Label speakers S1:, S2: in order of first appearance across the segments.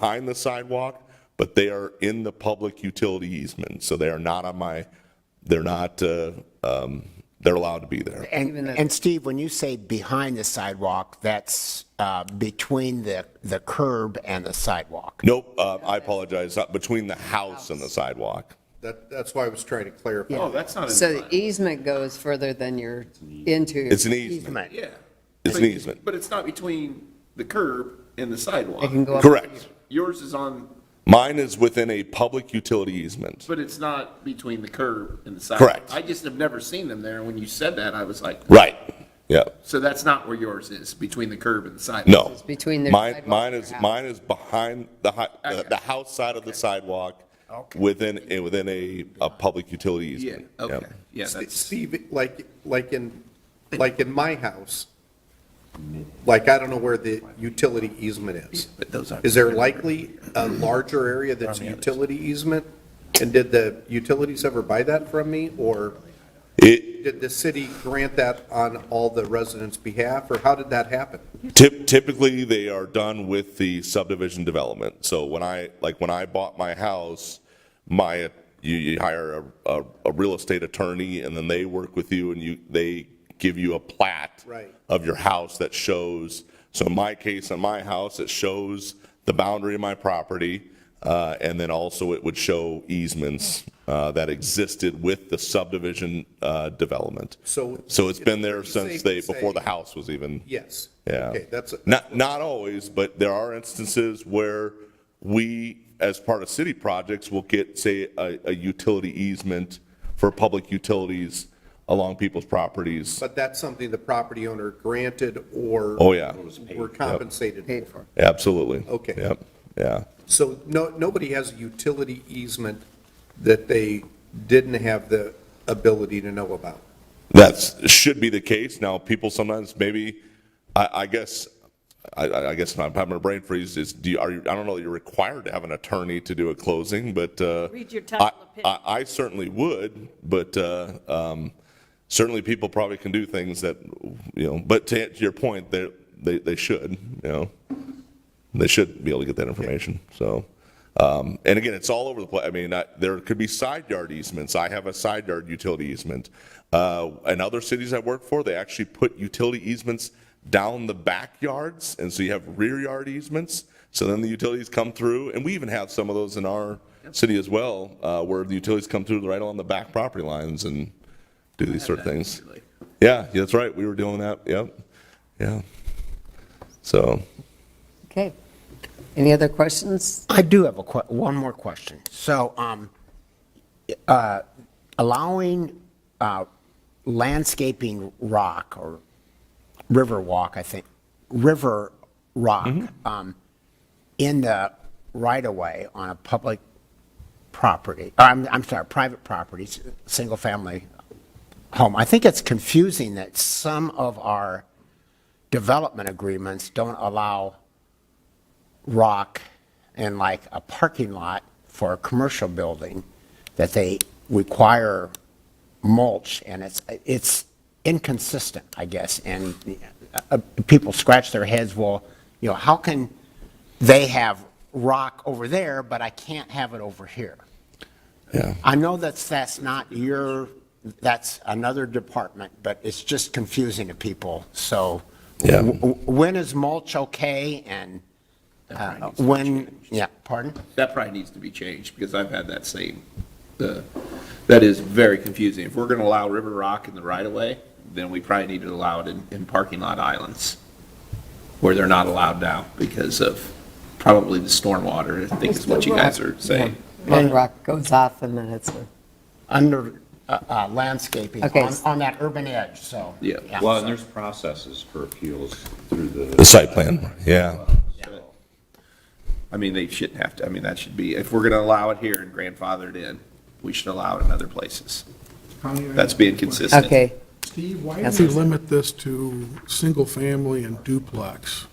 S1: behind the sidewalk, but they are in the public utility easement, so they are not on my, they're not, uh, um, they're allowed to be there.
S2: And, and Steve, when you say behind the sidewalk, that's uh, between the, the curb and the sidewalk.
S1: Nope, uh, I apologize, uh, between the house and the sidewalk.
S3: That, that's why I was trying to clarify.
S4: Oh, that's not in
S5: So
S4: the
S5: the easement goes further than you're into.
S1: It's an easement,
S4: Yeah.
S1: It's
S4: But-
S1: an easement.
S4: But it's not between the curb and the sidewalk.
S5: It can go up.
S1: correct.
S4: Yours is on,
S1: Mine is within a public utility easement.
S4: but it's not between the curb and the sidewalk.
S1: Correct.
S4: I just have never seen them there. When you said that, I was like,
S1: Right, yeah,
S4: so that's not where yours is, between the curb and the sidewalk?
S1: no.
S5: between their
S1: Mine,
S5: sidewalk
S1: mine
S5: and their
S1: is,
S5: house.
S1: mine is behind the, hi- the- the house side of the sidewalk, within, eh, within a, a public utility
S4: Yeah,
S1: easement. Yep.
S4: okay, yeah,
S3: Ste-
S4: that's,
S3: Steve, like, like in, like in my house, like, I don't know where the utility easement is.
S4: but those aren't.
S3: Is there likely a larger area that's a utility easement? And did the utilities ever buy that from me, or
S1: It,
S3: did the city grant that on all the residents' behalf, or how did that happen?
S1: Typ- Typically, they are done with the subdivision development. So when I, like, when I bought my house, my, you, you hire a, a, a real estate attorney, and then they work with you, and you, they give you a plat
S3: Right.
S1: of your house that shows, so in my case, on my house, it shows the boundary of my property, uh, and then also it would show easements uh, that existed with the subdivision uh, development.
S3: So-
S1: So it's been there
S3: It's safe
S1: since
S3: to
S1: they, before
S3: say-
S1: the house was even.
S3: Yes.
S1: Yeah.
S3: Okay, that's,
S1: Not, not always, but there are instances where we, as part of city projects, will get, say, a, a utility easement for public utilities along people's properties.
S3: but that's something the property owner granted or
S1: Oh, yeah,
S3: were compensated
S5: Paid
S3: for.
S5: for.
S1: absolutely.
S3: Okay.
S1: Yep, yeah.
S3: So no, nobody has a utility easement that they didn't have the ability to know about.
S1: That's, should be the case. Now, people sometimes maybe, I, I guess, I, I I guess I'm having a brain freeze, is, do you, are you, I don't know, that you're required to have an attorney to do a closing, but, uh.
S6: Read your title
S1: I-
S6: of pin.
S1: I, I certainly would, but, uh, um, certainly people probably can do things that, you know, but to answer your point, they're, they, they should, you know? They should be able to get that information, so. Um, and again, it's all over the place. I mean, I, there could be side yard easements. I have a side yard utility easement. Uh, in other cities I work for, they actually put utility easements down the backyards, and so you have rear yard easements. So then the utilities come through, and we even have some of those in our city as well, uh, where the utilities come through right along the back property lines and do these sort of things. Yeah, that's right. We were doing that. Yep. Yeah. So.
S5: Okay. Any other questions?
S2: I do have a que, one more question. So, um, uh, allowing, uh, landscaping rock or river walk, I think, river rock, um, in the right of way on a public property, I'm, I'm sorry, private properties, single family home. I think it's confusing that some of our development agreements don't allow rock and like a parking lot for a commercial building that they require mulch and it's, it's inconsistent, I guess. And uh, uh, people scratch their heads, well, you know, how can they have rock over there, but I can't have it over here?
S1: Yeah.
S2: I know that's, that's not your, that's another department, but it's just confusing to people, so.
S1: Yeah.
S2: w- w- When is mulch okay and uh, when, yeah, pardon?
S4: That probably needs to be changed, because I've had that same, uh, that is very confusing. If we're gonna allow River Rock in the right-of-way, then we probably need to allow it in, in parking lot islands, where they're not allowed now because of probably the stormwater, I think is what you guys are saying.
S5: One rock goes off and then it's, a-
S2: Under uh, uh, landscaping
S5: Okay.
S2: on, on that urban edge, so.
S4: Yeah.
S7: Well, and there's processes for appeals through the.
S1: The site plan, yeah.
S4: I mean, they shouldn't have to, I mean, that should be, if we're gonna allow it here and grandfather it in, we should allow it in other places. That's being consistent.
S5: okay.
S8: Steve, why
S5: That's
S8: do we
S5: what-
S8: limit this to single-family and duplex?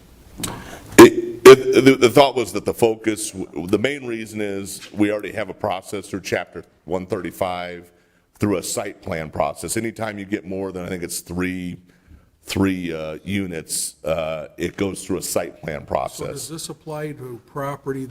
S1: It, it, the, the thought was that the focus, the main reason is we already have a process through chapter one thirty-five through a site plan process. Anytime you get more than, I think it's three, three, uh, units, uh, it goes through a site plan
S8: So
S1: process.
S8: does this apply to property